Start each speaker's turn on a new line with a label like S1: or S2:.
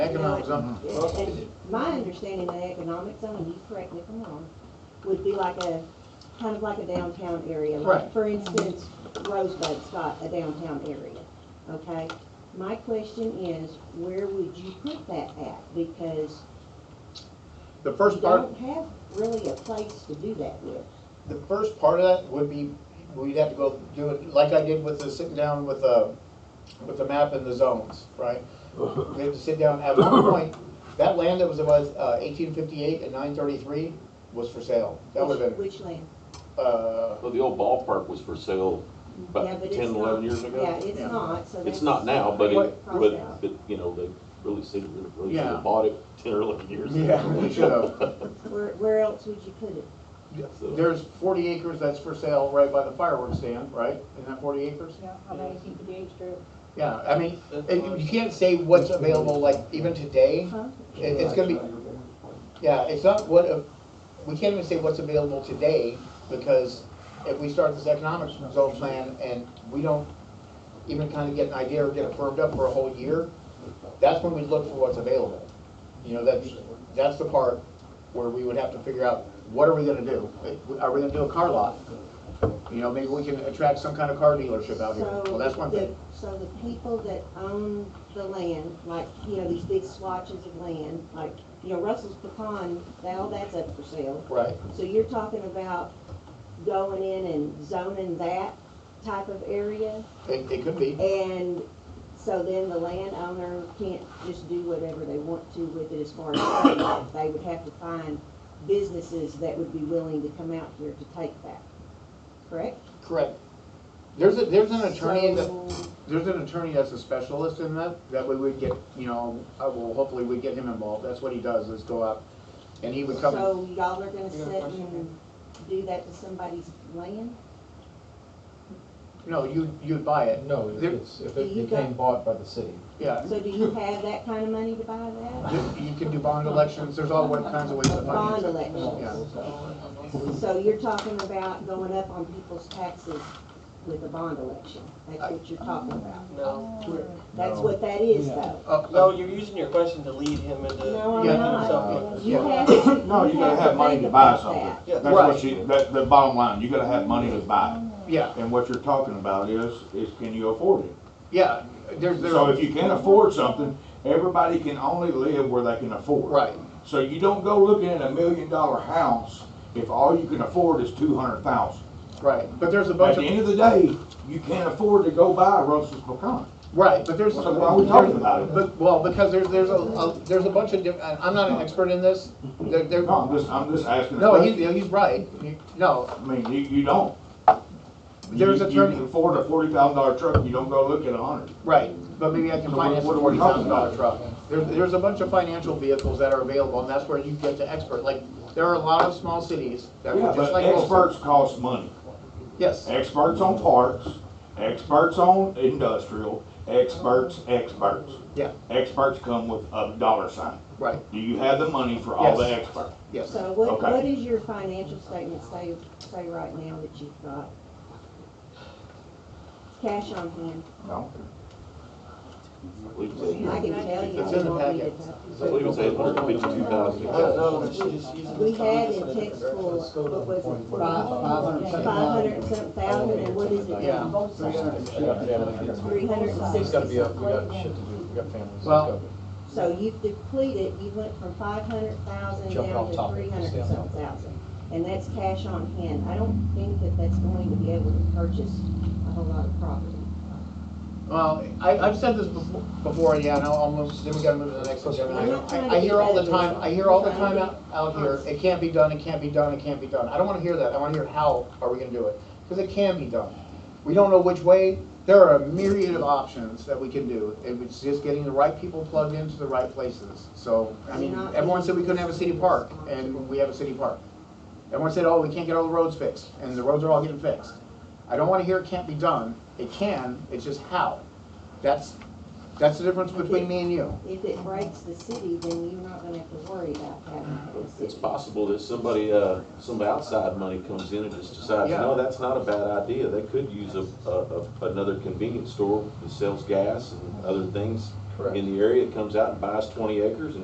S1: economic zone.
S2: And my understanding of the economic zone, and you correct me if I'm wrong, would be like a, kind of like a downtown area. Like,
S1: Right.
S2: For instance, Rosebud's got a downtown area, okay? My question is, where would you put that at? Because
S1: The
S2: you
S1: first part,
S2: don't have really a place to do that with.
S1: the first part of that would be, we'd have to go do it, like I did with the, sitting down with the, with the map and the zones, right? We have to sit down, at one point, that land that was about eighteen fifty-eight and nine thirty-three was for sale. That would have been,
S2: Which which land?
S1: uh,
S3: Well, the old ballpark was for sale
S2: Yeah,
S3: about
S2: but
S3: 10,
S2: it's
S3: 11
S2: not-
S3: years ago.
S2: Yeah, it's
S1: Yeah.
S2: not, so that's.
S3: It's not now, but it,
S2: Crossed
S3: but,
S2: out.
S3: but, you know, they really seem, really should
S1: Yeah.
S3: have bought it ten or eleven years ago.
S1: yeah, we should have.
S2: Where, where else would you put it?
S1: There's forty acres that's for sale right by the fireworks stand, right? Isn't that forty acres?
S4: Yeah, I mean, you could be extra.
S1: Yeah, I mean, and you can't say what's available, like, even today,
S2: Huh?
S1: It- It's gonna be, yeah, it's not what, a- we can't even say what's available today, because if we start this economic zone plan and we don't even kind of get an idea or get it firmed up for a whole year, that's when we look for what's available. You know, that's, that's the part where we would have to figure out, what are we gonna do? Are we gonna do a car lot? You know, maybe we can attract some kind of car dealership out here.
S2: So
S1: Well, that's one
S2: the-
S1: thing.
S2: So the people that own the land, like, you know, these big swatches of land, like, you know, Russell's Pecan, now that's up for sale.
S1: Right,
S2: So you're talking about going in and zoning that type of area?
S1: it, it could be.
S2: And so then the landowner can't just do whatever they want to with it as far as, they would have to find businesses that would be willing to come out here to take that, correct?
S1: Correct. There's a, there's an attorney that,
S2: So-
S1: there's an attorney that's a specialist in that, that way we'd get, you know, I will, hopefully we get him involved, that's what he does, is go out, and he would come. and-
S2: So y'all are gonna sit and do that to somebody's land?
S1: No, you, you'd buy it,
S5: No, if
S1: There-
S5: it's, if it
S2: You got-
S5: became bought by the city.
S1: yeah.
S2: So do you have that kind of money to buy that?
S1: You you can do bond elections, there's all kinds of ways to finance
S2: Bond
S1: it.
S2: elections? So you're talking about going up on people's taxes with a bond election? That's what you're talking about?
S6: No,
S2: That's what that is though?
S1: Uh,
S6: no, you're using your question to lead him into.
S2: No, I'm
S1: Yeah.
S2: not.
S6: Something.
S2: You have to, you have to
S7: No, you gotta have money
S2: think
S7: to buy
S2: about
S7: something.
S2: that.
S6: Yeah.
S7: That's what you, that, the bottom line, you gotta have money to buy it.
S1: Yeah,
S7: And what you're talking about is, is can you afford it?
S1: yeah, there's,
S7: So
S1: there's,
S7: if you can't afford something, everybody can only live where they can afford.
S1: right,
S7: So you don't go looking at a million dollar house if all you can afford is two hundred thousand.
S1: right, but there's a
S7: At
S1: bunch
S7: the
S1: of,
S7: end of the day, you can't afford to go buy a Russell's pecan.
S1: right, but there's.
S7: So why are we talking about it?
S1: But, well, because there's, there's a- a, there's a bunch of, diff- and I'm not an expert in this, there, there,
S7: No, I'm just, I'm just asking. a
S1: no,
S7: question.
S1: he's, he's right, You- no,
S7: I mean, you, you don't.
S1: There's
S7: You-
S1: a
S7: You
S1: turn-
S7: can afford a forty thousand dollar truck, you don't go look at a hundred.
S1: Right, but maybe I can
S7: So what-
S1: finance a
S7: what are
S1: forty
S7: we talking
S1: thousand
S7: about?
S1: dollar truck. There's, there's a bunch of financial vehicles that are available, and that's where you get the expert, like, there are a lot of small cities that
S7: Yeah,
S1: were just
S7: but
S1: like. Wilson.
S7: experts cost money.
S1: Yes,
S7: Experts on parks, experts on industrial, experts, experts.
S1: yeah,
S7: Experts come with a dollar sign.
S1: right,
S7: Do you have the money for all the
S1: Yes.
S7: experts?
S1: yes.
S2: So what,
S7: Okay.
S2: what is your financial statement say, say right now that you've got? Cash on hand,
S7: No.
S3: I believe it's eight-
S2: I can tell you.
S1: It's in the
S2: what we did.
S1: packet.
S3: I believe it's eight hundred fifty-two thousand.
S6: No, no, she's just using.
S2: We had in tech school, what was it, five, five hundred and some thousand, and what is it
S1: Yeah.
S2: now? Three hundred and
S5: It's gotta
S2: sixty
S5: be up, we
S2: something.
S5: got shit to do, we got families.
S1: Well-
S2: So you've depleted, you went from five hundred thousand
S5: Jumping
S2: down
S5: off
S2: to
S5: top.
S2: three hundred and some thousand. And that's cash on hand. I don't think that that's going to be able to purchase a whole lot of property.
S1: Well, I, I've said this before, before, yeah, no, almost, then we gotta move to the next agenda.
S2: I'm not
S1: item.
S2: trying to
S1: I, I hear all the
S2: be bad,
S1: time, I hear all the
S2: I'm trying
S1: time
S2: to
S1: out, out here, it can't be done, it can't be done, it can't be done. I don't wanna hear that, I wanna hear how are we gonna do it, cause it can be done. We don't know which way, there are a myriad of options that we can do, and it's just getting the right people plugged into the right places. So, I mean, everyone said we couldn't have a city park, and we have a city park. Everyone said, oh, we can't get all the roads fixed, and the roads are all getting fixed. I don't wanna hear it can't be done, it can, it's just how. That's, that's the difference between me and you.
S2: If it breaks the city, then you're not gonna have to worry about having the
S3: It's
S2: city.
S3: possible that somebody, uh, some outside money comes in and just decides, you
S1: Yeah.
S3: know, that's not a bad idea. They could use a, a, a- another convenience store that sells gas and other things
S5: Correct.
S3: in the area, comes out and buys twenty acres and